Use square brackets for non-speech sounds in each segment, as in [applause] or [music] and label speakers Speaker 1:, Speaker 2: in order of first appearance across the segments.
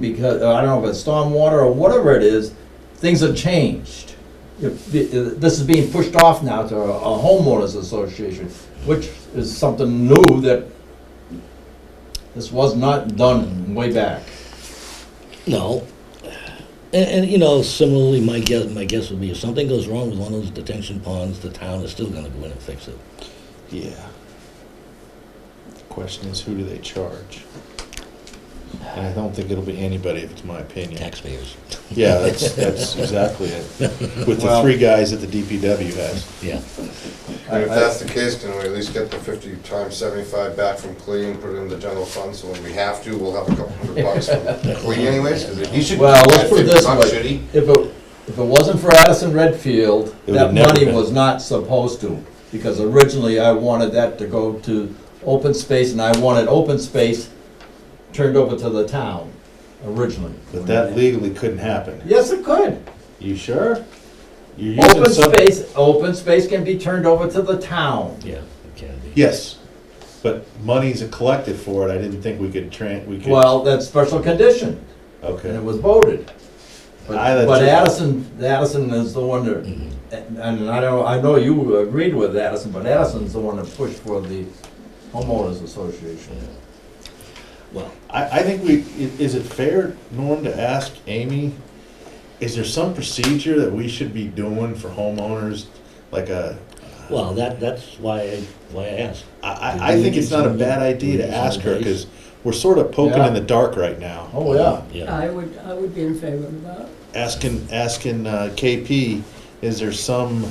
Speaker 1: because, uh, I don't know if it's stormwater or whatever it is, things have changed. If- if- This is being pushed off now to a homeowners association, which is something new that this was not done way back.
Speaker 2: No. And, and, you know, similarly, my guess, my guess would be if something goes wrong with one of those detention ponds, the town is still gonna go in and fix it.
Speaker 3: Yeah. The question is, who do they charge? And I don't think it'll be anybody, if it's my opinion.
Speaker 2: Taxpayers,
Speaker 3: Yeah, that's, that's exactly it. With the
Speaker 1: Well-
Speaker 3: three guys that the DPW has.
Speaker 2: yeah.
Speaker 4: And if that's the case, can we at least get the fifty times seventy-five back from Clea and put it in the general fund, so when we have to, we'll have a couple hundred bucks from Clea anyways, because he should.
Speaker 1: Well, let's put it this
Speaker 4: Not should
Speaker 1: way,
Speaker 4: he?
Speaker 1: if it, if it wasn't for Addison Redfield, that
Speaker 3: It would've never
Speaker 1: money
Speaker 3: been.
Speaker 1: was not supposed to, because originally I wanted that to go to open space, and I wanted open space turned over to the town, originally.
Speaker 3: But that legally couldn't happen.
Speaker 1: Yes, it could.
Speaker 3: You sure? You're using
Speaker 1: Open
Speaker 3: some-
Speaker 1: space, open space can be turned over to the town.
Speaker 2: Yeah, it can be.
Speaker 3: Yes, but monies are collected for it. I didn't think we could tran, we could.
Speaker 1: Well, that's special condition, and it
Speaker 3: Okay,
Speaker 1: was voted. But
Speaker 3: I- that's Mm-hmm.
Speaker 1: but
Speaker 3: just-
Speaker 1: Addison, Addison is the one that, and and I know, I know you agreed with Addison, but Addison's the one that pushed for the homeowners association.
Speaker 2: Well,
Speaker 3: I, I think we, i- is it fair, Norm, to ask Amy, is there some procedure that we should be doing for homeowners? Like uh, a,
Speaker 2: well, that, that's why, I why I asked.
Speaker 3: I, I, I think it's not a bad idea to ask her, cause we're sort of poking in the dark right now.
Speaker 1: Oh, yeah.
Speaker 2: Yeah,
Speaker 5: I would, I would be in favor of that.
Speaker 3: Asking, asking uh, KP, is there some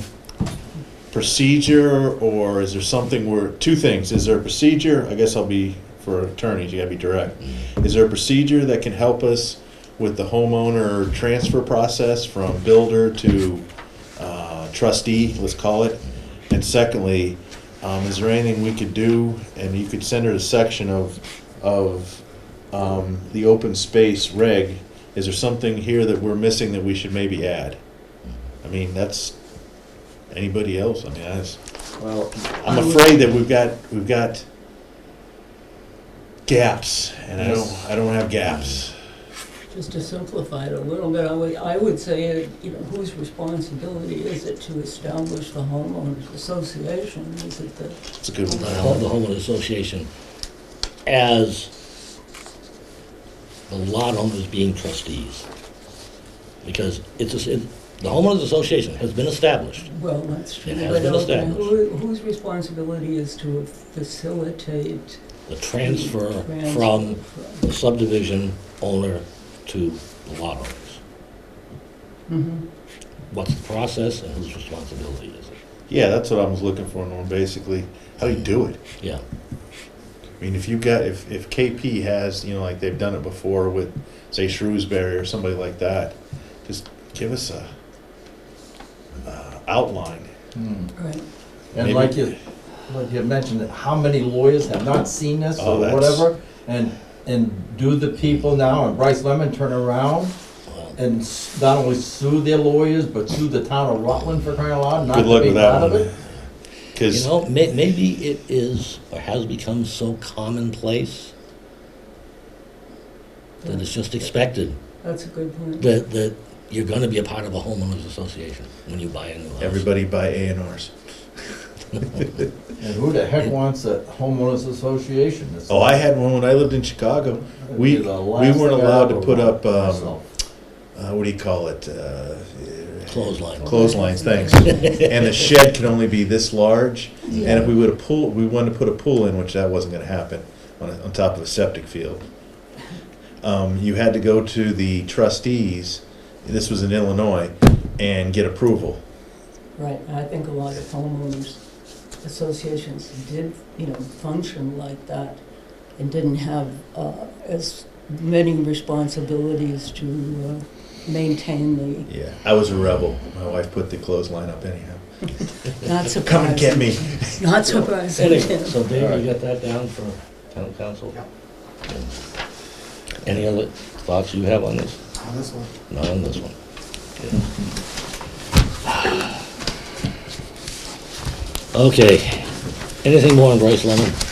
Speaker 3: procedure or is there something where, two things, is there a procedure? I guess I'll be, for attorneys, you gotta be direct. Is there a procedure that can help us with the homeowner transfer process from builder to uh, trustee, let's call it? And secondly, um, is there anything we could do, and you could send her a section of, of um, the open space reg, is there something here that we're missing that we should maybe add? I mean, that's, anybody else, I mean, that's.
Speaker 1: Well,
Speaker 3: I'm afraid that we've got, we've got gaps, and I don't, I don't have gaps.
Speaker 5: Just to simplify it a little bit, I would, I would say, you know, whose responsibility is it to establish the homeowners association? Is it the,
Speaker 3: It's a good
Speaker 2: the
Speaker 3: one.
Speaker 2: home- the homeowner association as the lot owners being trustees. Because it's, a s- it- the homeowners association has been established.
Speaker 5: well, that's true.
Speaker 2: It has
Speaker 5: but
Speaker 2: been
Speaker 5: okay,
Speaker 2: established.
Speaker 5: who- Whose responsibility is to facilitate?
Speaker 2: The transfer
Speaker 5: transfer
Speaker 2: from
Speaker 5: from-
Speaker 2: the subdivision owner to the lot owners.
Speaker 5: Mhm.
Speaker 2: What's the process and whose responsibility is it?
Speaker 3: Yeah, that's what I was looking for, Norm, basically. How do you do it?
Speaker 2: Yeah,
Speaker 3: I mean, if you got, if, if KP has, you know, like they've done it before with, say, Shrewsbury or somebody like that, just give us a, uh, outline.
Speaker 1: hmm.
Speaker 5: Right,
Speaker 1: and
Speaker 3: Maybe-
Speaker 1: like you, like you mentioned, how many lawyers have not seen this or
Speaker 3: Oh, that's-
Speaker 1: whatever? And, and do the people now, and Bryce Lemon turn around
Speaker 2: well,
Speaker 1: and s- not only sue their lawyers, but sue the town of Rutland for crying out loud, not
Speaker 3: Good luck
Speaker 1: to be
Speaker 3: with that
Speaker 1: part of
Speaker 3: one.
Speaker 1: it?
Speaker 2: you
Speaker 3: Cause,
Speaker 2: know, may, maybe it is or has become so commonplace that it's just expected
Speaker 5: that's a good point.
Speaker 2: that, that you're gonna be a part of a homeowners association when you buy a new house.
Speaker 3: everybody buy A and Rs.
Speaker 1: And who the heck wants a homeowners association? It's-
Speaker 3: Oh, I had one when I lived in Chicago.
Speaker 1: it'd
Speaker 3: we-
Speaker 1: be the
Speaker 3: we
Speaker 1: last
Speaker 3: weren't
Speaker 1: thing I'd
Speaker 3: allowed to
Speaker 1: ever
Speaker 3: put
Speaker 1: want
Speaker 3: up, um,
Speaker 1: myself.
Speaker 3: Uh, what do you call it? Uh,
Speaker 2: Clothesline.
Speaker 3: clotheslines, thanks.
Speaker 5: [laughs]
Speaker 3: and the shed can only be this large. And if we would have pool, we wanted to put a pool in, which that wasn't going to happen on, a, on top of a septic field. Um, you had to go to the trustees. This was in Illinois, and get approval.
Speaker 5: Right, and I think a lot of homeowners associations did, you know, function like that and didn't have uh, as many responsibilities to uh, maintain the,
Speaker 3: Yeah, I was a rebel. My wife put the clothesline up anyhow.
Speaker 5: not surprising.
Speaker 3: Come and get me.
Speaker 5: Not surprising. [laughs]
Speaker 2: Anyway, so Dave, you got that down for town council? Any other thoughts you have on this?
Speaker 6: On this one.
Speaker 2: Not on this one. Okay, anything more on Bryce Lemon?